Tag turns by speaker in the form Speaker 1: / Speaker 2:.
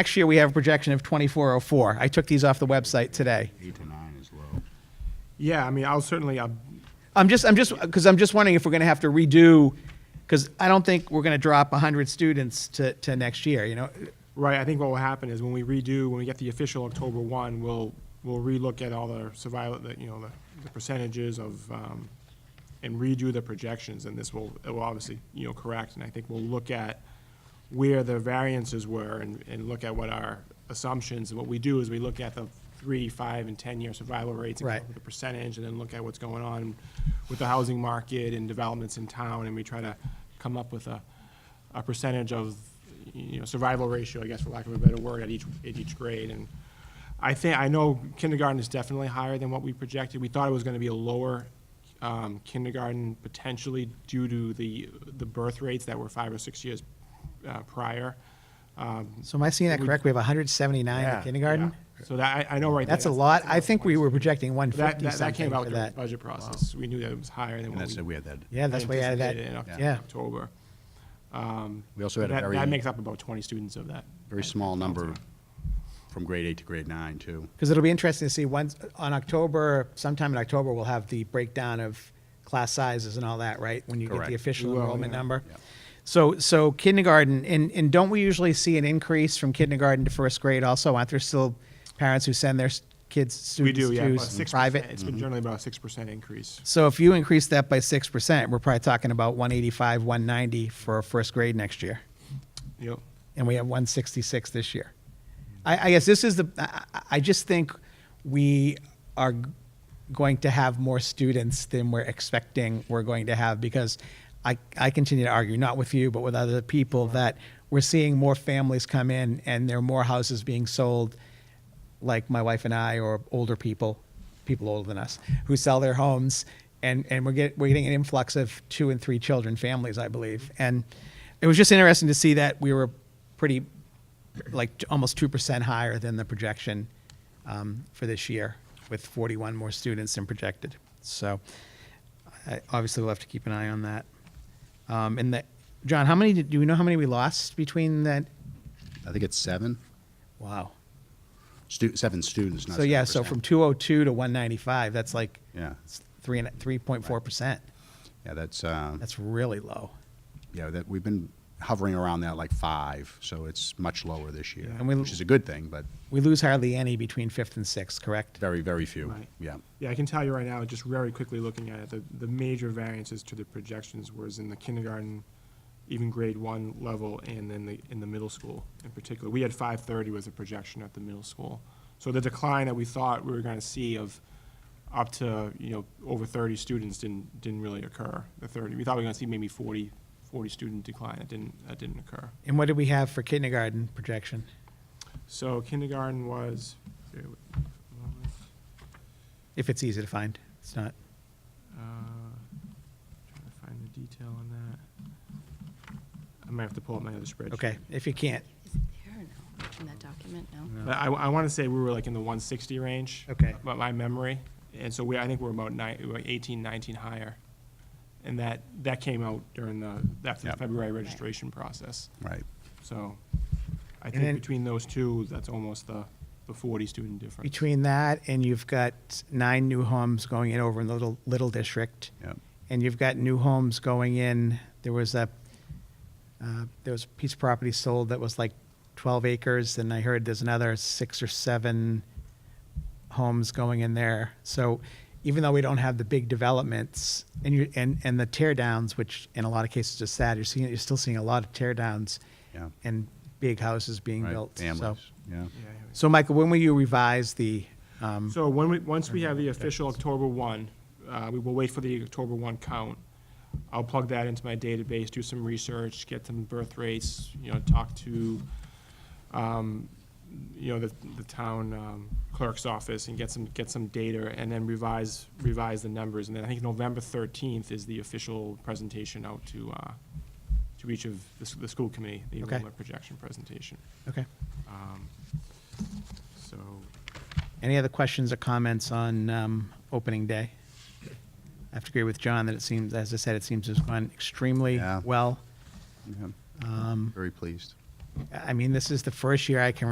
Speaker 1: Next year, we have a projection of 2404. I took these off the website today.
Speaker 2: Eight to nine is low.
Speaker 3: Yeah, I mean, I'll certainly, uh, I'll-
Speaker 1: I'm just, I'm just, because I'm just wondering if we're going to have to redo, because I don't think we're going to drop 100 students to, to next year, you know?
Speaker 3: right, I think what will happen is when we redo, when we get the official October 1, we'll, we'll relook at all the survival, the, you know, the- the percentages of, um, and redo the projections, and this will, it will obviously, you know, correct, and I think we'll look at where the variances were and, and look at what our assumptions, and what we do is we look at the three, five, and 10-year survival rates. and come
Speaker 1: Right.
Speaker 3: up with a percentage and then look at what's going on with the housing market and developments in town, and we try to come up with a, a percentage of, you know, survival ratio, I guess, for lack of a better word, at each, at each grade. And I think, I know kindergarten is definitely higher than what we projected. We thought it was gonna be a lower um, kindergarten potentially due to the, the birth rates that were five or six years uh, prior. Um,
Speaker 1: So am I seeing that correct? We have 179 in kindergarten?
Speaker 3: Yeah. So that, I, I know right there.
Speaker 1: That's a lot. I think we were projecting
Speaker 3: That,
Speaker 1: 150
Speaker 3: that, that
Speaker 1: something
Speaker 3: came out
Speaker 1: for
Speaker 3: during the
Speaker 1: that.
Speaker 3: budget process. We knew that it was higher than
Speaker 2: And
Speaker 3: what
Speaker 2: that's,
Speaker 3: we.
Speaker 2: we had that.
Speaker 1: Yeah, that's way out of that.
Speaker 3: anticipated in Oc-
Speaker 1: Yeah.
Speaker 3: October.
Speaker 2: We also had a
Speaker 3: That- That
Speaker 2: very,
Speaker 3: makes up about twenty students of that.
Speaker 2: very small number from grade eight to grade nine, too.
Speaker 1: Because it'll be interesting to see once, on October, sometime in October, we'll have the breakdown of class sizes and all that, right? When you get
Speaker 2: Correct.
Speaker 1: the official
Speaker 3: We will,
Speaker 1: enrollment
Speaker 3: yeah.
Speaker 1: number.
Speaker 2: Yeah.
Speaker 1: So, so kindergarten, and, and don't we usually see an increase from kindergarten to first grade also? Aren't there still parents who send their s- kids,
Speaker 3: We
Speaker 1: students
Speaker 3: do, yeah,
Speaker 1: to
Speaker 3: about
Speaker 1: s-
Speaker 3: six
Speaker 1: private? Mm-hmm.
Speaker 3: It's been generally about a six percent increase.
Speaker 1: So if you increase that by six percent, we're probably talking about one eighty-five, one ninety for first grade next year,
Speaker 3: Yep.
Speaker 1: and we have one sixty-six this year. I, I guess this is the. I, I- I just think we are g- going to have more students than we're expecting we're going to have because I, I continue to argue, not with you, but with other people, that we're seeing more families come in and there are more houses being sold like my wife and I, or older people, people older than us, who sell their homes, and, and we're, get, we're getting an influx of two and three children families, I believe. And it was just interesting to see that we were pretty, like t- almost 2% higher than the projection um, for this year, with 41 more students than projected. So I, obviously, we'll have to keep an eye on that. Um, and the, John, how many, did- do we know how many we lost between that?
Speaker 2: I think it's seven,
Speaker 1: Wow.
Speaker 2: stu, seven students, not
Speaker 1: So yeah, so
Speaker 2: 7%.
Speaker 1: from 202 to 195, that's like
Speaker 2: Yeah.
Speaker 1: it's three and 3.4%.
Speaker 2: Yeah, that's, uh,
Speaker 1: That's really low.
Speaker 2: yeah, that, we've been hovering around that like five, so it's much lower this year,
Speaker 3: Yeah.
Speaker 1: And we-
Speaker 2: which is a good thing, but
Speaker 1: We lose hardly any between 5th and 6th, correct?
Speaker 2: very, very few,
Speaker 3: Right.
Speaker 2: yeah.
Speaker 3: Yeah, I can tell you right now, just very quickly looking at it, the, the major variances to the projections was in the kindergarten, even grade one level, and then the, in the middle school in particular. We had five thirty was a projection at the middle school. So the decline that we thought we were gonna see of up to, you know, over thirty students didn't, didn't really occur, the thirty. We thought we were gonna see maybe 40 40 student decline, that didn't, that didn't occur.
Speaker 1: And what did we have for kindergarten projection?
Speaker 3: So kindergarten was, bear with me for a moment.
Speaker 1: If it's easy to find, it's not.
Speaker 3: Uh, Trying to find the detail on that. I might have to pull up my other spreadsheet.
Speaker 1: Okay, if you can't,
Speaker 4: Is it there or no, in that document, no?
Speaker 3: But I, I want to say we were like in the one sixty range.
Speaker 1: Okay.
Speaker 3: By my memory, and so we, I think we're about nine, we were eighteen, nineteen higher. And that, that came out during the, after the
Speaker 2: Yep.
Speaker 3: February registration process.
Speaker 2: Right.
Speaker 3: So I
Speaker 1: then-
Speaker 3: think between those two, that's almost the, the forty student difference.
Speaker 1: between that and you've got nine new homes going in over in the little, little district.
Speaker 2: Yep.
Speaker 1: And you've got new homes going in, there was a, uh, there was a piece of property sold that was like 12 acres, and I heard there's another six or seven homes going in there. So even though we don't have the big developments and you, and, and the tear downs, which in a lot of cases is sad, you're seeing, you're still seeing a lot of tear downs
Speaker 2: Yeah.
Speaker 1: and big houses being
Speaker 2: Right,
Speaker 1: built. So-
Speaker 2: Families, yeah.
Speaker 3: Yeah, yeah, yeah.
Speaker 1: So Michael, when will you revise the, um,
Speaker 3: So when we, once we have the official October one, uh, we will wait for the October one count. I'll plug that into my database, do some research, get some birth rates, you know, talk to, um, you know, the, the town um, clerk's office and get some, get some data and then revise, revise the numbers. And then I think November thirteenth is the official presentation out to, uh, to each of the, s- the school committee, the
Speaker 1: Okay.
Speaker 3: enrollment projection presentation.
Speaker 1: okay.
Speaker 3: Um, So,
Speaker 1: Any other questions or comments on um, opening day? I have to agree with John that it seems, as I said, it seems to have gone extremely
Speaker 2: Yeah.
Speaker 1: well. Mm-hmm.
Speaker 2: yeah. Very pleased.
Speaker 1: I mean, this is the first year I can